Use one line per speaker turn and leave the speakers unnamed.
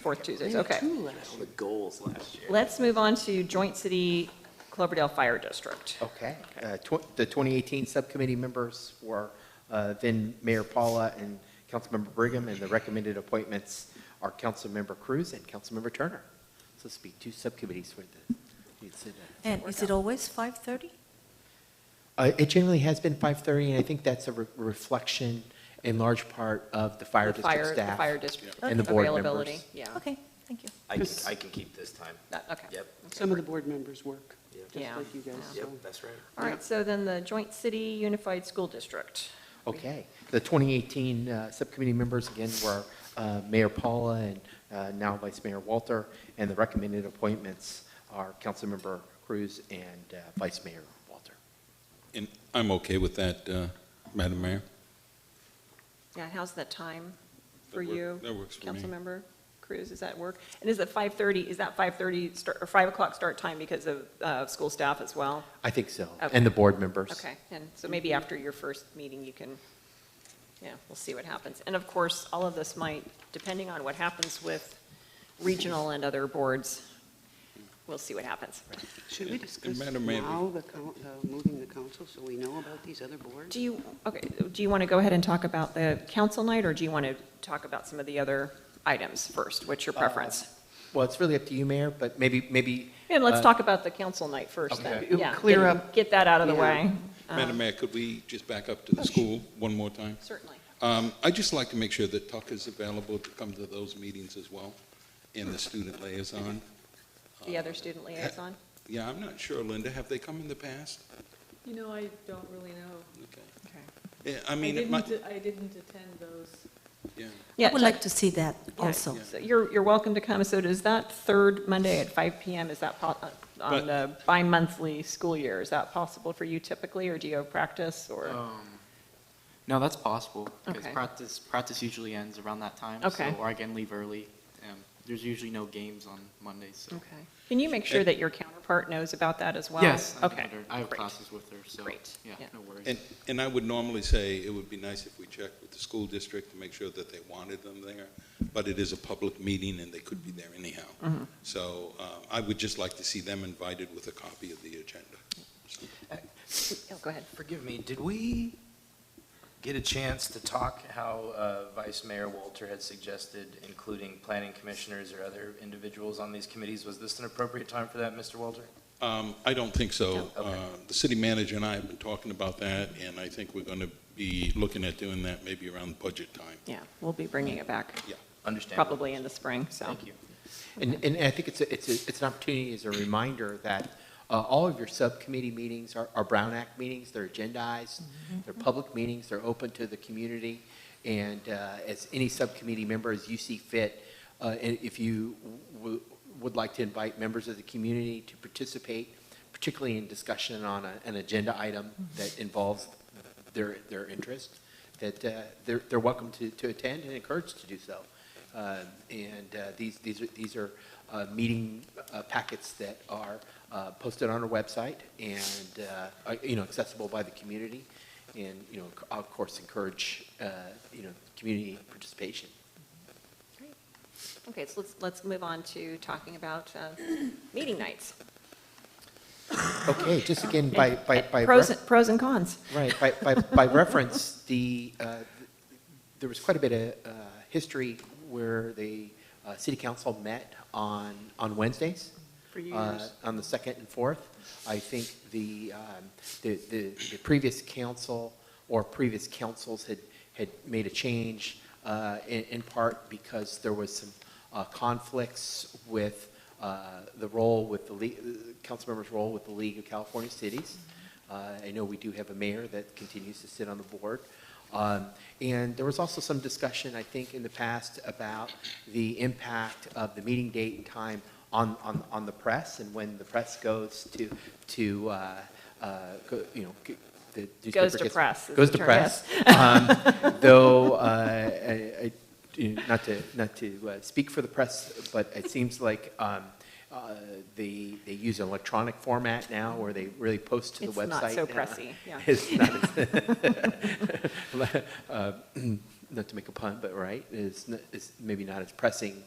Fourth Tuesdays,
We had
okay.
two last
The
year.
goals last year.
Let's move on to Joint City Cloverdale Fire District.
Okay.
Okay.
Uh, tw- The 2018 subcommittee members were uh, then Mayor Paula and Councilmember Brigham, and the recommended appointments are Councilmember Cruz and Councilmember Turner. So this will be two subcommittees for the, you'd sit down.
And is it always 5:30?
Uh, It generally has been 5:30, and I think that's a re- reflection in large part of the fire
The
district
fire-
staff.
The fire district.
And the board members.
Availability, yeah.
Okay, thank you.
I can, I can keep this time.
That- Okay.
Yep,
Okay.
Some of the board members work,
Yeah.
just
Yeah.
like you guys.
yep,
so-
that's right.
All right, so then the Joint City Unified School District.
Okay. The 2018 uh, subcommittee members, again, were uh, Mayor Paula and uh, now Vice Mayor Walter, and the recommended appointments are Councilmember Cruz and uh, Vice Mayor Walter.
And I'm okay with that, uh, Madam Mayor.
Yeah, how's that time for
That work-
you?
that works for me.
Councilmember Cruz, is that work? And is it 5:30, is that 5:30 start, or 5 o'clock start time because of uh, school staff as well?
I think so,
Okay.
and the board members.
Okay, and so
Mm-hmm.
maybe after your first meeting, you can, yeah, we'll see what happens. And of course, all of this might, depending on what happens with regional and other boards, we'll see what happens.
Should we
And- and
discuss
Madam Mayor-
now the, coun- uh, moving the council so we know about these other boards?
Do you, okay, do you want to go ahead and talk about the council night, or do you want to talk about some of the other items first? What's
Uh,
your preference?
Well, it's really up to you, Mayor, but maybe, maybe.
And let's
uh,
talk about the council night first, then.
Okay. It'll
Yeah,
clear
get-
up-
Get that out of the
Yeah.
way.
Madam Mayor, could we just back up to the school one more time?
Certainly.
Um, I'd just like to make sure that Tuck is available to come to those meetings as well, and the student liaison.
The other student liaison?
Yeah, I'm not sure, Linda, have they come in the past?
You know, I don't really know.
Okay.
Okay.
Yeah, I
I
mean, it might,
didn't, I didn't attend those.
yeah.
I
Yeah,
would
Tuck-
like to see that
Yeah,
also.
so You're, you're welcome to come. So does that third Monday at 5 PM, is that po- uh, on
But-
the bi-monthly school year? Is that possible for you typically, or do you have practice, or?
Uh,
Um, No, that's possible, because
Okay.
practice, practice usually ends around that time.
Okay.
So, or I can leave early. Um, There's usually no games on Mondays, so.
Okay. Can you make sure
And-
that your counterpart knows about that as well?
Yes, I know
Okay,
her. I have
great.
classes with her, so.
Great, yeah.
Yeah, no worries.
And, and I would normally say it would be nice if we checked with the school district to make sure that they wanted them there, but it is a public meeting and they could be there anyhow. So um, I would just like to see them invited with a copy of the agenda. So-
Oh, Go ahead.
Forgive me, did we get a chance to talk how uh, Vice Mayor Walter had suggested including planning commissioners or other individuals on these committees? Was this an appropriate time for that, Mr. Walter?
Um, I don't think so.
No. Okay.
Uh, The city manager and I have been talking about that, and I think we're going to be looking at doing that maybe around budget time.
Yeah, we'll be bringing it back
Understandable.
probably in the spring, so.
Thank you.
And, and I think it's, a- it's, a- it's an opportunity as a reminder that uh, all of your subcommittee meetings are, are Brown Act meetings, they're agendized, they're public meetings, they're open to the community. And uh, as any subcommittee member, as you see fit, uh, and if you w- would like to invite members of the community to participate, particularly in discussion on a- an agenda item that involves their, their interest, that uh, they're, they're welcome to, to attend and encouraged to do so. Um, And uh, these, these are, these are uh, meeting uh, packets that are uh, posted on our website and, uh, are, you know, accessible by the community. And, you know, of course, encourage, uh, you know, community participation.
Okay, so let's, let's move on to talking about uh, meeting nights.
Okay, just again, by, by, by.
Pros, pros and cons.
Right, by, by, by reference, the, uh, there was quite a bit of uh, history where the uh, city council met on, on Wednesdays.
For
uh,
years.
On the second and fourth. I think the, um, the, the the previous council or previous councils had, had made a change uh, in, in part because there was some uh, conflicts with uh, the role with the league, council members' role with the League of California Cities. Uh, I know we do have a mayor that continues to sit on the board. Um, And there was also some discussion, I think, in the past about the impact of the meeting date and time on, on, on the press and when the press goes to, to, uh, uh, go- you know, g- the newspaper
to
gets-
press is
Goes
the
to
term,
press. Um, Though, uh, I- I- you know, not to, not to uh, speak for the press, but it seems like um, uh, they, they use an electronic format now where they really post to the
It's
website.
not so
now.
pressy, yeah.
It's not as- uh, not to make a pun, but right, is, n- is maybe not as pressing